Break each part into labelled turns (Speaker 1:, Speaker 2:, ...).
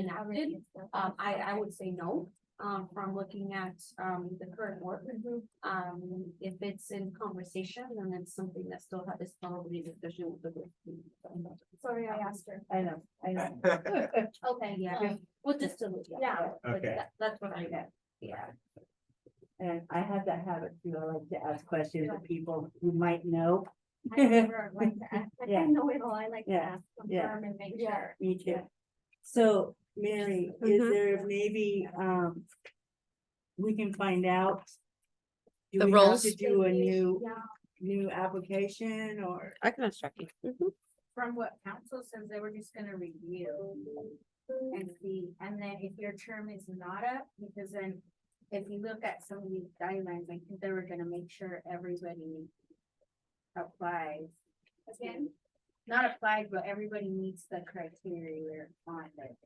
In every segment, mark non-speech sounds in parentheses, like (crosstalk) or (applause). Speaker 1: enacted. Um, I, I would say no, um, from looking at, um, the current working group. Um, if it's in conversation, then it's something that still ha- is probably a discussion with the group.
Speaker 2: Sorry, I asked her.
Speaker 1: I know, I know.
Speaker 2: (laughs)
Speaker 1: Okay, yeah, well, just to, look, yeah.
Speaker 2: Yeah.
Speaker 1: but
Speaker 3: Okay.
Speaker 1: that- That's what I get, yeah.
Speaker 4: And I have that habit too. I like to ask questions of people who might know.
Speaker 2: I never like to ask. I
Speaker 4: Yeah.
Speaker 2: kind know it all. I like to
Speaker 4: Yeah.
Speaker 2: ask,
Speaker 4: Yeah.
Speaker 2: confirm and make
Speaker 1: Yeah.
Speaker 2: sure.
Speaker 4: Me too.
Speaker 2: Yeah.
Speaker 4: So Mary, is
Speaker 5: Mhm.
Speaker 4: there maybe, um, we can find out? do
Speaker 5: The
Speaker 4: we have
Speaker 5: roles?
Speaker 4: To do a new,
Speaker 2: Yeah,
Speaker 4: new application or?
Speaker 5: I can instruct you. Mhm.
Speaker 2: From what council says, they were just gonna review and see, and then if your term is not up, because then if you look at some of these guidelines, I think they were gonna make sure everybody applies. Again, not applied, but everybody meets the criteria on it.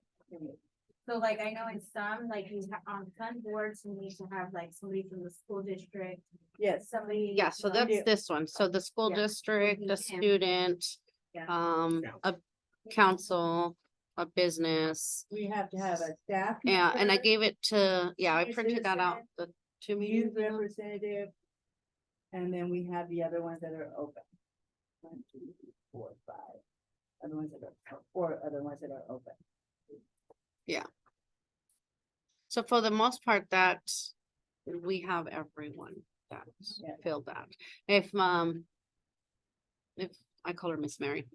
Speaker 2: So like, I know in some, like you have, on some boards, you need to have like somebody from the school district,
Speaker 4: Yes.
Speaker 2: somebody.
Speaker 5: Yeah, so
Speaker 2: from-
Speaker 5: that's this one. So the school
Speaker 2: Yeah.
Speaker 5: district, the
Speaker 2: Mhm.
Speaker 5: student,
Speaker 2: Yeah.
Speaker 5: um, a council, a business.
Speaker 4: We have to have a staff.
Speaker 5: Yeah, and I
Speaker 4: member,
Speaker 5: gave it to, yeah, I
Speaker 4: Senior
Speaker 5: printed that out
Speaker 4: citizen,
Speaker 5: the two
Speaker 4: Youth
Speaker 5: meetings. ago.
Speaker 4: representative. And then we have the other ones that are open. One, two, three, four, five. Other ones that are, or other ones that are open.
Speaker 5: So for the most part, that we have everyone that
Speaker 4: Yeah.
Speaker 5: filled that. If, um, if I call her Miss Mary,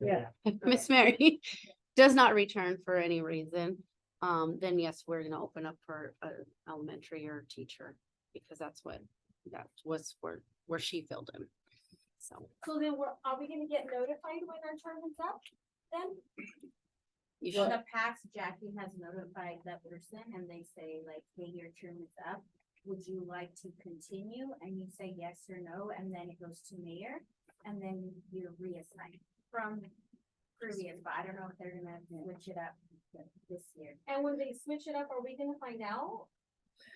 Speaker 4: Yeah.
Speaker 5: Miss Mary (laughs) does not return for any reason, um, then yes, we're gonna open up for a elementary or teacher. Because that's what, that was where, where she filled in. So
Speaker 2: So then we're, are we gonna get notified when our term is up then?
Speaker 5: you
Speaker 2: In
Speaker 5: should,
Speaker 2: the past, Jackie has notified that person and they say like, hey, your term is up. Would you like to continue? And you say yes or no, and then it goes to mayor, and then you're reassigned from previous, but I don't know if they're gonna switch it up this year.
Speaker 1: And when they switch it up, are we gonna find out?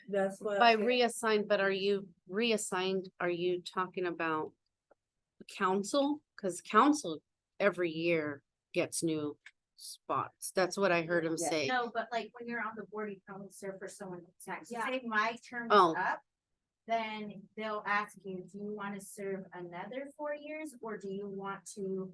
Speaker 4: That's what.
Speaker 5: by reassigned, but are you reassigned, are you talking about council? Cause council every year gets new spots. That's what I heard him
Speaker 4: Yeah.
Speaker 5: say.
Speaker 2: No, but like when you're on the board, you probably serve for someone who's taxed.
Speaker 1: Yeah.
Speaker 2: Say my term is
Speaker 5: Oh.
Speaker 2: up. Then they'll ask you, do you want to serve another four years or do you want to?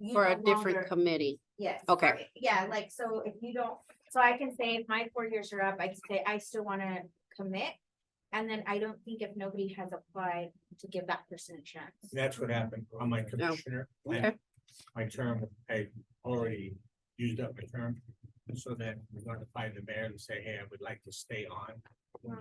Speaker 2: you
Speaker 5: For a
Speaker 2: no
Speaker 5: different
Speaker 2: longer-
Speaker 5: committee.
Speaker 2: Yes.
Speaker 5: Okay.
Speaker 2: or- Yeah, like, so if you don't, so I can say if my four years are up, I can say I still want to commit. And then I don't think if nobody has applied to give that person a chance.
Speaker 3: That's what happened on my commissioner. plan.
Speaker 5: Okay.
Speaker 3: My term, I already used up my term, so then we're gonna find the mayor and say, hey, I would like to stay on.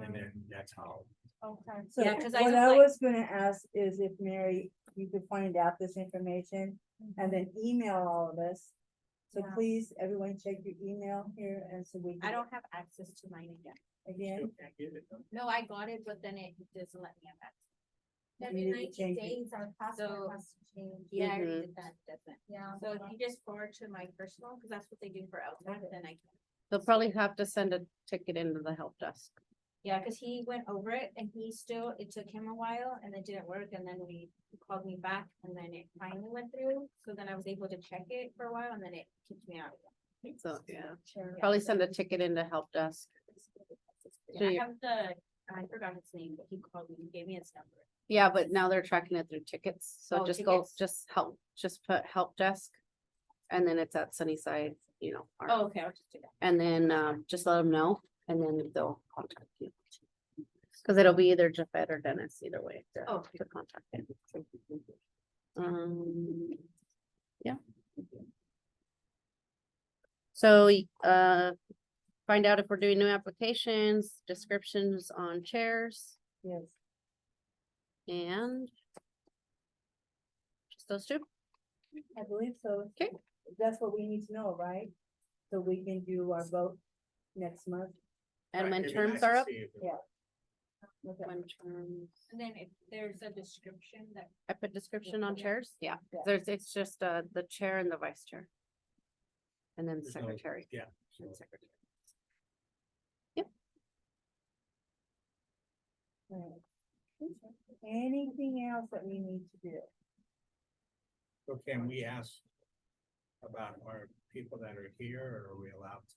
Speaker 3: And then that's how.
Speaker 2: Okay.
Speaker 4: So
Speaker 2: Yeah, 'cause I
Speaker 4: what
Speaker 2: just
Speaker 4: I
Speaker 2: like-
Speaker 4: was gonna ask is if Mary, you could find out this information
Speaker 2: mm,
Speaker 4: and then email all of us. So
Speaker 2: Yeah.
Speaker 4: please, everyone check your email here and so we.
Speaker 2: I
Speaker 4: can-
Speaker 2: don't have access to mine again.
Speaker 4: Again,
Speaker 2: No, I got it, but then it doesn't let me have access.
Speaker 4: Every You need to 90 change it.
Speaker 2: our
Speaker 1: password
Speaker 2: has to change. Yeah, I already
Speaker 5: Mhm.
Speaker 2: did that, doesn't. Yeah. So if you Um, just forward to my personal, because that's what they do for LTAC, then I can.
Speaker 5: They'll probably have to send a ticket into the help desk.
Speaker 2: Yeah, because he went over it and he still, it took him a while and it didn't work and then we he called me back and then it finally went through. So then I was able to check it for a while and then it kicked me out. again.
Speaker 5: So, yeah.
Speaker 2: Sure.
Speaker 5: Probably send a ticket into help desk.
Speaker 2: Yeah,
Speaker 5: to
Speaker 2: I
Speaker 5: you.
Speaker 2: have the, I forgot his name, but he called me, he gave me his number.
Speaker 5: Yeah, but now they're tracking it through tickets, so
Speaker 2: Oh,
Speaker 5: just go,
Speaker 2: tickets.
Speaker 5: just help, just put help desk. And then it's at Sunnyside, you know, or-
Speaker 2: Oh, okay, I'll just do that.
Speaker 5: and then um just let them know, and then they'll contact you. Cause it'll be either Jafet or Dennis, either way. to-
Speaker 2: Oh.
Speaker 5: To contact them. Um, yeah. So uh, find out if we're doing new applications, descriptions on chairs.
Speaker 4: yes,
Speaker 5: And just those two?
Speaker 4: I believe so.
Speaker 5: Okay.
Speaker 4: That's what we need to know, right? So we can do our vote next month.
Speaker 5: And when terms are up?
Speaker 4: Okay.
Speaker 5: When terms,
Speaker 2: And then if there's a description that
Speaker 5: I put description on
Speaker 2: Yeah.
Speaker 5: chairs, yeah,
Speaker 4: Yeah.
Speaker 5: there's, it's just uh, the chair and the vice chair. And then
Speaker 3: There's no-
Speaker 5: secretary.
Speaker 3: yeah,
Speaker 5: and
Speaker 3: so-
Speaker 5: secretary.
Speaker 4: Right. Anything else that we need to do?
Speaker 3: So can we ask about our people that are here, or are we allowed to?